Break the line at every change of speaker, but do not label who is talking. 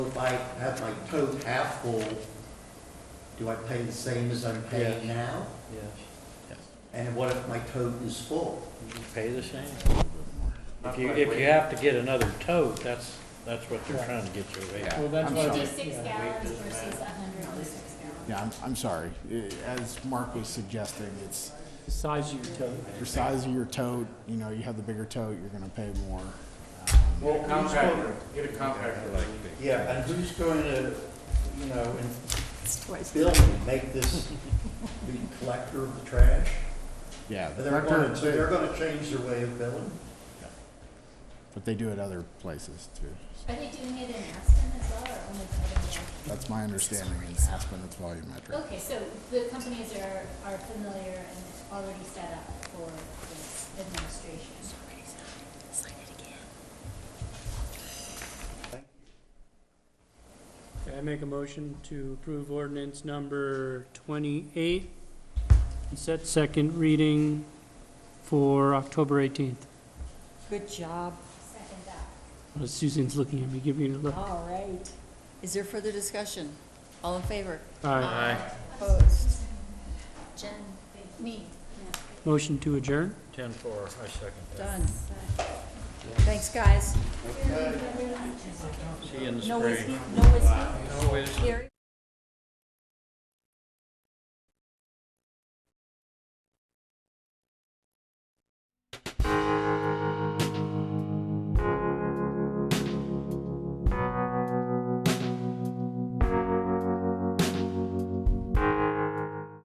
if I have my tote half full, do I pay the same as I'm paying now?
Yes,
And what if my tote is full?
you pay the same. If you, if you have to get another tote, that's, that's what they're trying to get you away
Yeah.
from.
Well, that's
I'm
why,
sorry.
the-
Fifty-six
yeah.
gallons versus hundred and six gallons.
Yeah, I'm, I'm sorry. Uh, As Mark was suggesting, it's
size of your tote.
your size of your tote, you know, you have the bigger tote, you're gonna pay more.
Well, contractor, get a contractor like this.
Yeah, and who's going to, you know, in
Twice.
building, make this the collector of the trash?
Yeah.
But they're going to, they're going to change their way of billing?
But they do it other places too.
Are they doing it in Aspen as well, or only Covington?
That's my understanding in Aspen, it's volumetric.
Okay, so the companies are, are familiar and already set up for this administration.
Sign it again.
Okay, I make a motion to approve ordinance number twenty-eight, and set second reading for October eighteenth.
Good job.
Second that.
Susan's looking at me, giving me a look.
All right. Is there further discussion? All in favor?
Aye.
Opposed?
Jen, me.
Motion to adjourn?
Ten four, I second that.
Done. Thanks, guys.
See you in the
No
spring.
whiskey, no whiskey. Gary?